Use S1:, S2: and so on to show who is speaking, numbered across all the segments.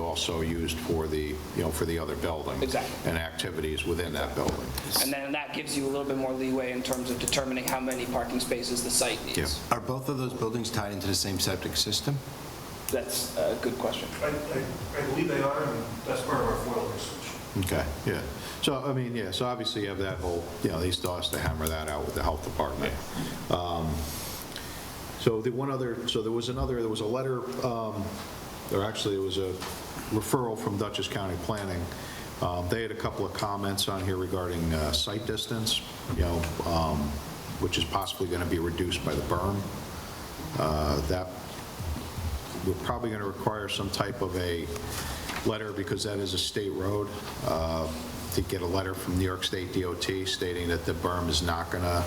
S1: also used for the, you know, for the other building.
S2: Exactly.
S1: And activities within that building.
S2: And then that gives you a little bit more leeway in terms of determining how many parking spaces the site
S1: Yeah.
S2: needs.
S3: Are both of those buildings tied into the same septic system?
S2: That's a good question.
S4: I, I- I believe they are, and that's part of our FOIL research.
S1: Okay, yeah. So, I mean, yeah, so obviously you have that whole, you know, he still has to hammer that out with the health department. Um, So the one other, so there was another, there was a letter, um, or actually it was a referral from Dutchess County Planning. Um, They had a couple of comments on here regarding uh, site distance, you know, um, which is possibly going to be reduced by the berm. Uh, That we're probably going to require some type of a letter, because that is a state road, uh, to get a letter from New York State DOT stating that the berm is not going to,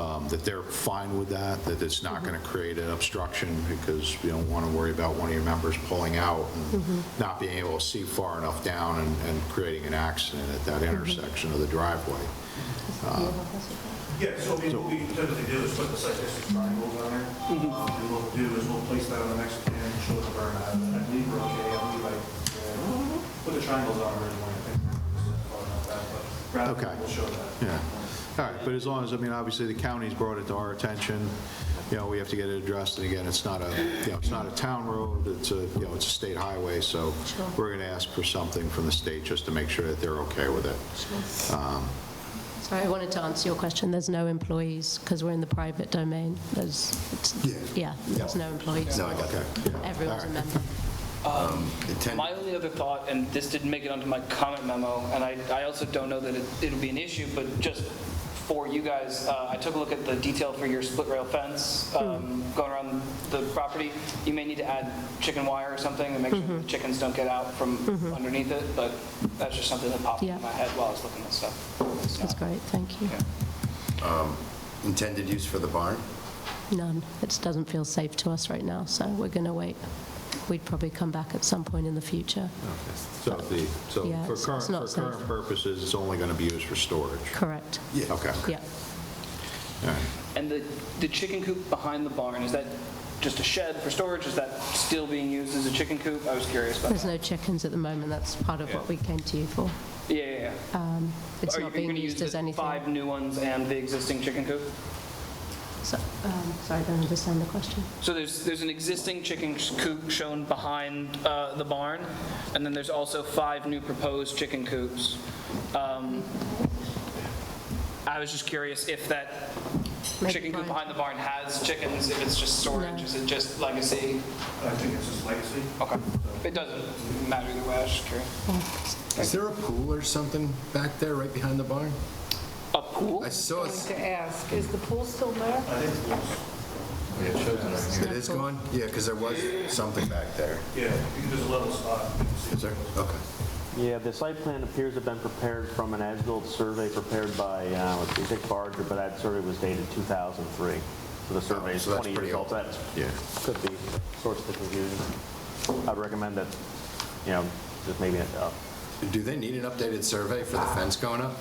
S1: um, that they're fine with that, that it's not going to create an obstruction, because we don't want to worry about one of your members pulling out and not being able to see far enough down and- and creating an accident at that intersection of the driveway.
S4: Yeah, so we- what we typically do is put the site distance triangles on there. Um, And what we'll do is we'll place that on the next plan and show the burn out. I believe we're okay, I believe I uh, put the triangles on originally, I think. we're not that, but
S1: Okay.
S4: Graphically, we'll show that.
S1: Yeah, all right, but as long as, I mean, obviously, the county's brought it to our attention, you know, we have to get it addressed, and again, it's not a, you know, it's not a town road, it's a, you know, it's a state highway, so we're gonna ask for something from the state just to make sure that they're okay with it.
S5: Sorry, I wanted to answer your question. There's no employees because we're in the private domain. There's, it's- yeah, there's no employees.
S3: No, I got that.
S5: Everyone's a member.
S3: Intent-
S2: My only other thought, and this didn't make it onto my comment memo, and I, I also don't know that it, it'll be an issue, but just for you guys, uh, I took a look at the detail for your split rail fence, um,
S5: Mm-hmm.
S2: going around the property. You may need to add chicken wire or something and make sure
S5: Mm-hmm.
S2: the chickens don't get out from underneath it, but that's just something that popped
S5: Yeah.
S2: in my head while I was looking at stuff. It's
S5: That's
S2: not-
S5: great, thank you.
S3: Intended use for the barn?
S5: None. It doesn't feel safe to us right now, so we're going to wait. We'd probably come back at some point in the future.
S1: So the, so
S5: Yeah,
S1: for
S5: it's-
S1: current,
S5: it's not
S1: for current
S5: safe.
S1: purposes, it's only gonna be used for storage.
S5: Correct.
S1: Okay,
S5: Yeah.
S2: And the, the chicken coop behind the barn, is that just a shed for storage? Is that still being used as a chicken coop? I was curious about
S5: There's
S2: that.
S5: no chickens at the moment. That's part of what we came to you for.
S2: Yeah, yeah, yeah.
S5: It's
S2: Are you
S5: not being
S2: gonna use
S5: used
S2: the
S5: as anything.
S2: Five new ones and the existing chicken coop?
S5: So- um, Sorry, I don't understand the question.
S2: So there's, there's an existing chicken coop shown behind uh, the barn, and then there's also five new proposed chicken coops. Um, I was just curious if that
S5: Maybe
S2: chicken coop
S5: Brian-
S2: behind the barn has chickens, if it's just storage,
S5: No.
S2: is it just legacy?
S4: I think it's just legacy.
S2: Okay, it doesn't matter either way, I was just curious.
S6: Is there a pool or something back there, right behind the barn?
S2: A pool?
S6: I saw
S7: going
S6: it,
S7: to ask, is the pool still there?
S4: I think it's,
S6: it is gone? Yeah, because there was something back there.
S4: yeah, because there's a level spot. You can see
S3: Is there? Okay.
S8: Yeah, the site plan appears to have been prepared from an as-built survey prepared by, uh, let's see, Dick Barger, but that survey was dated 2003. So the survey is
S3: Oh, so that's
S8: 20 years
S3: pretty
S8: old, so that
S3: Yeah.
S8: could be source of confusion. I'd recommend that, you know, just maybe, uh,
S3: Do they need an updated survey for the fence going up?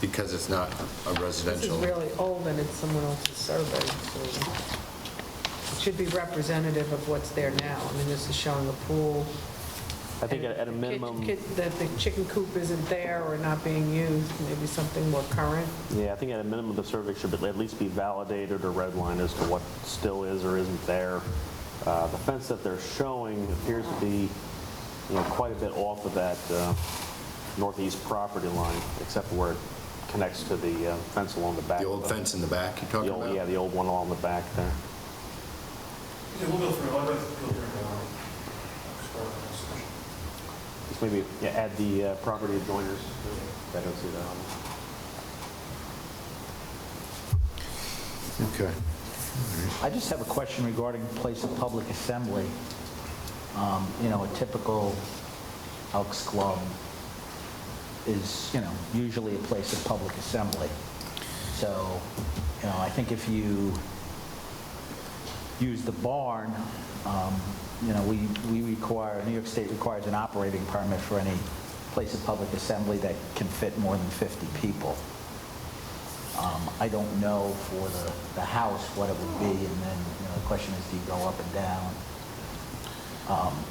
S3: Because it's not a
S7: This is
S3: residential.
S7: really old and it's someone else's survey, so it should be representative of what's there now. I mean, this is showing a pool.
S8: I think at at a
S7: Kid-
S8: minimum,
S7: kid- That the chicken coop isn't there or not being used, maybe something more current.
S8: yeah, I think at a minimum, the survey should at least be validated or redlined as to what still is or isn't there. Uh, The fence that they're showing appears to be, you know, quite a bit off of that uh, northeast property line, except for where it connects to the uh, fence along the back.
S3: The old
S8: of the-
S3: fence in the back you're talking
S8: the old-
S3: about?
S8: Yeah, the old one along the back there.
S4: Yeah, we'll go through, I'll go through uh, it now. Just go through this section.
S8: Just maybe yeah, add the uh, property adjoiners. I don't see that on there.
S1: okay.
S9: I just have a question regarding place of public assembly. Um, You know, a typical Elks Club is, you know, usually a place of public assembly. So, you know, I think if you use the barn, um, you know, we we require, New York State requires an operating permit for any place of public assembly that can fit more than 50 people. Um, I don't know for the, the house what it would be, and then, you know, the question is, do you go up and down? Um,